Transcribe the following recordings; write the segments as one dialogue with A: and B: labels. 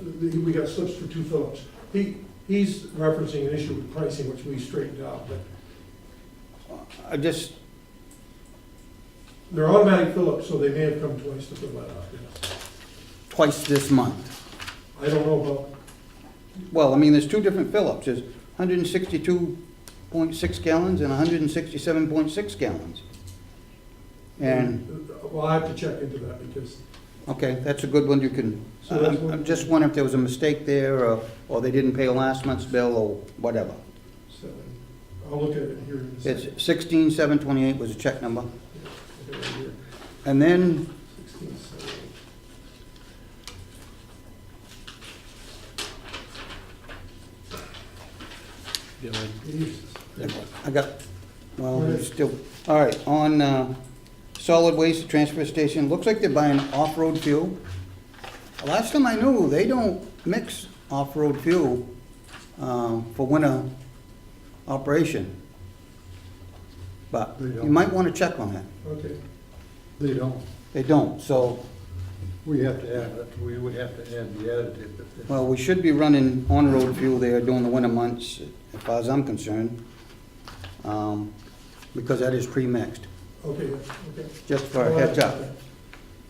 A: the- we got slips for two Phillips. He, he's referencing an issue with pricing, which we straightened out, but
B: I Uh, just,
A: they're automatic Phillips, so they may have come twice to fill that out, yes.
B: twice this month.
A: I don't know about,
B: Well, I mean, there's two different fill-ups, there's 162.6 gallons and 167.6 gallons. And,
A: well, I have to check into that because,
B: okay, that's a good one, you can,
A: So that's
B: I'm
A: one-
B: I'm just wondering if there was a mistake there, or, or they didn't pay last month's bill, or whatever.
A: so, I'll look at it here in a
B: It's
A: second.
B: 16728 was the check number.
A: Yeah, I got it right here.
B: And then,
A: 16, so- Jesus.
B: I got, well, we're still, all right, on uh, solid waste transfer station, looks like they're buying off-road fuel. Last time I knew, they don't mix off-road fuel um, for winter operation. But
C: They
B: you
C: don't.
B: might want to check on that.
A: Okay,
C: They don't.
B: They don't, so,
C: We have to add it, we would have to add the additive. if it-
B: well, we should be running on-road fuel there during the winter months, as far as I'm concerned, um, because that is pre-mixed,
A: okay, okay.
B: just for a heads up.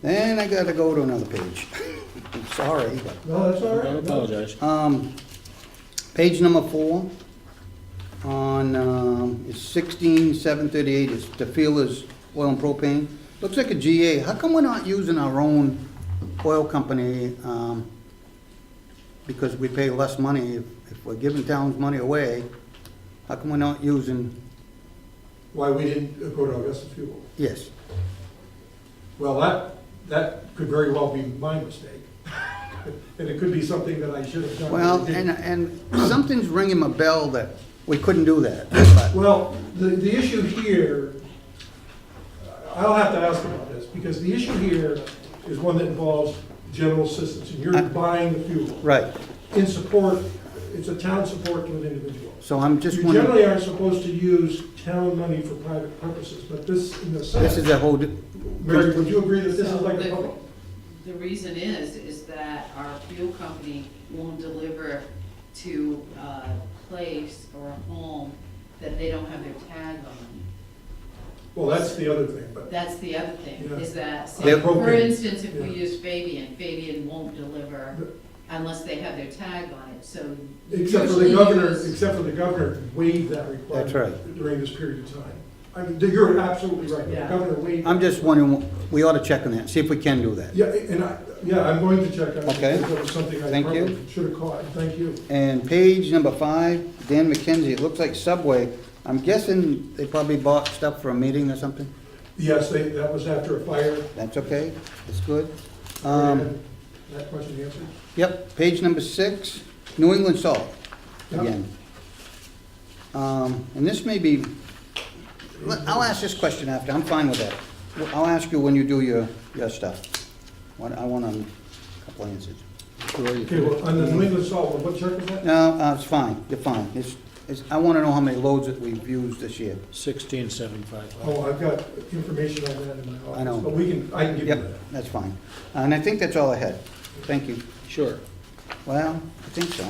B: Then I gotta go to another page. I'm sorry, but,
A: No, that's all right.
D: I apologize.
B: um, page number four on, um, it's sixteen seven thirty-eight, it's the feelers oil and propane. Looks like a GA. How come we're not using our own oil company, um, because we pay less money if, if we're giving towns money away? How come we're not using,
A: Why we didn't go to Augusta Fuel.
B: yes,
A: Well, that, that could very well be my mistake. And it could be something that I should have done.
B: well, and, and something's ringing a bell that we couldn't do that, but.
A: Well, the, the issue here, I'll have to ask about this, because the issue here is one that involves general assistance, and
B: Uh,
A: you're buying the fuel
B: Right,
A: in support, it's a town support to an individual.
B: so I'm
A: You
B: just wondering,
A: generally aren't supposed to use town money for private purposes, but this, in the
B: this is
A: sense,
B: a whole, di-
A: Mary, would you agree that this is like a
E: So,
A: public?
E: The reason is, is that our fuel company won't deliver to a place or a home that they don't have their tag on.
A: Well, that's the other thing, but,
E: That's the other thing,
A: Yeah.
E: is that,
A: They're
E: say, for
A: propane.
E: instance, if we
A: Yeah.
E: use Fabian, Fabian won't deliver
A: But-
E: unless they have their tag on it, so.
A: except for the
E: usually you
A: governor,
E: use-
A: except for the governor waived that
B: That's right.
A: requirement during this period of time. I mean, you're absolutely right, the
E: Yeah.
A: governor waived.
B: I'm just wondering, we ought to check on that, see if we can do that.
A: Yeah, and I, yeah, I'm going to check on it,
B: Okay.
A: because that was something I
B: Thank you.
A: probably should have caught, thank you.
B: And page number five, Dan McKenzie, it looks like Subway, I'm guessing they probably bought stuff for a meeting or something,
A: Yes, they, that was after a fire,
B: that's okay, that's good. Um,
A: and that question answered.
B: Yep, page number six, New England Salt,
A: Yep.
B: again. Um, And this may be, let- I'll ask this question after, I'm fine with that. Well, I'll ask you when you do your, your stuff. What- I want a couple answers.
A: Okay, well, on the New England salt, one, what check was that?
B: Mm-hmm. No, uh, it's fine, you're fine. It's, it's, I wanna know how many loads that we've used this year.
D: Sixteen seventy-five.
A: Oh, I've got information on that in my office.
B: I know.
A: But we can, I can give you
B: Yep,
A: that.
B: that's fine. And I think that's all I had. Thank you.
D: Sure,
B: Well, I think so.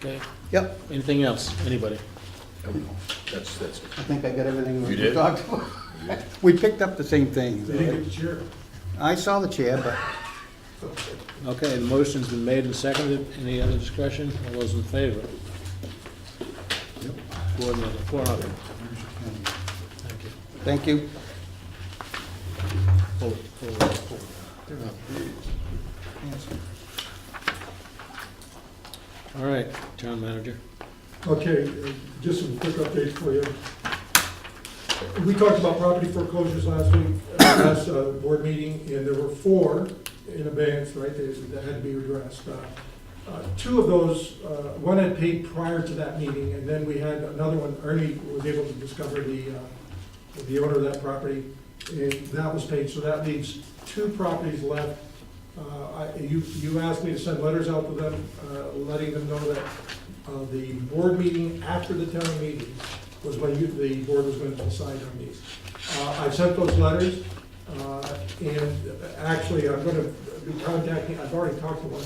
D: okay.
B: Yep,
D: Anything else, anybody?
F: That's, that's it.
B: I think I got everything
F: You
B: we
F: did?
B: talked about. We picked up the same
A: They didn't
B: thing.
A: get the chair.
B: I saw the chair, but,
D: Okay, the motion's been made and seconded. Any other discussion? All those in favor? Four nothing, four nothing.
B: thank
D: Thank you.
B: you.
D: Pull it, pull it, pull it. All right, town manager.
A: Okay, uh, just some quick updates for you. We talked about property foreclosures last week, uh, last uh, board meeting, and there were four in abeyance, right, that that had to be addressed. Uh, uh, Two of those, uh, one had paid prior to that meeting, and then we had another one, Ernie was able to discover the, uh, the owner of that property, and that was paid, so that leaves two properties left. Uh, I- You, you asked me to send letters out to them, uh, letting them know that uh, the board meeting after the town meeting was when you, the board was going to decide on these. Uh, I've sent those letters, uh, and actually, I'm going to be contacting, I've already talked to one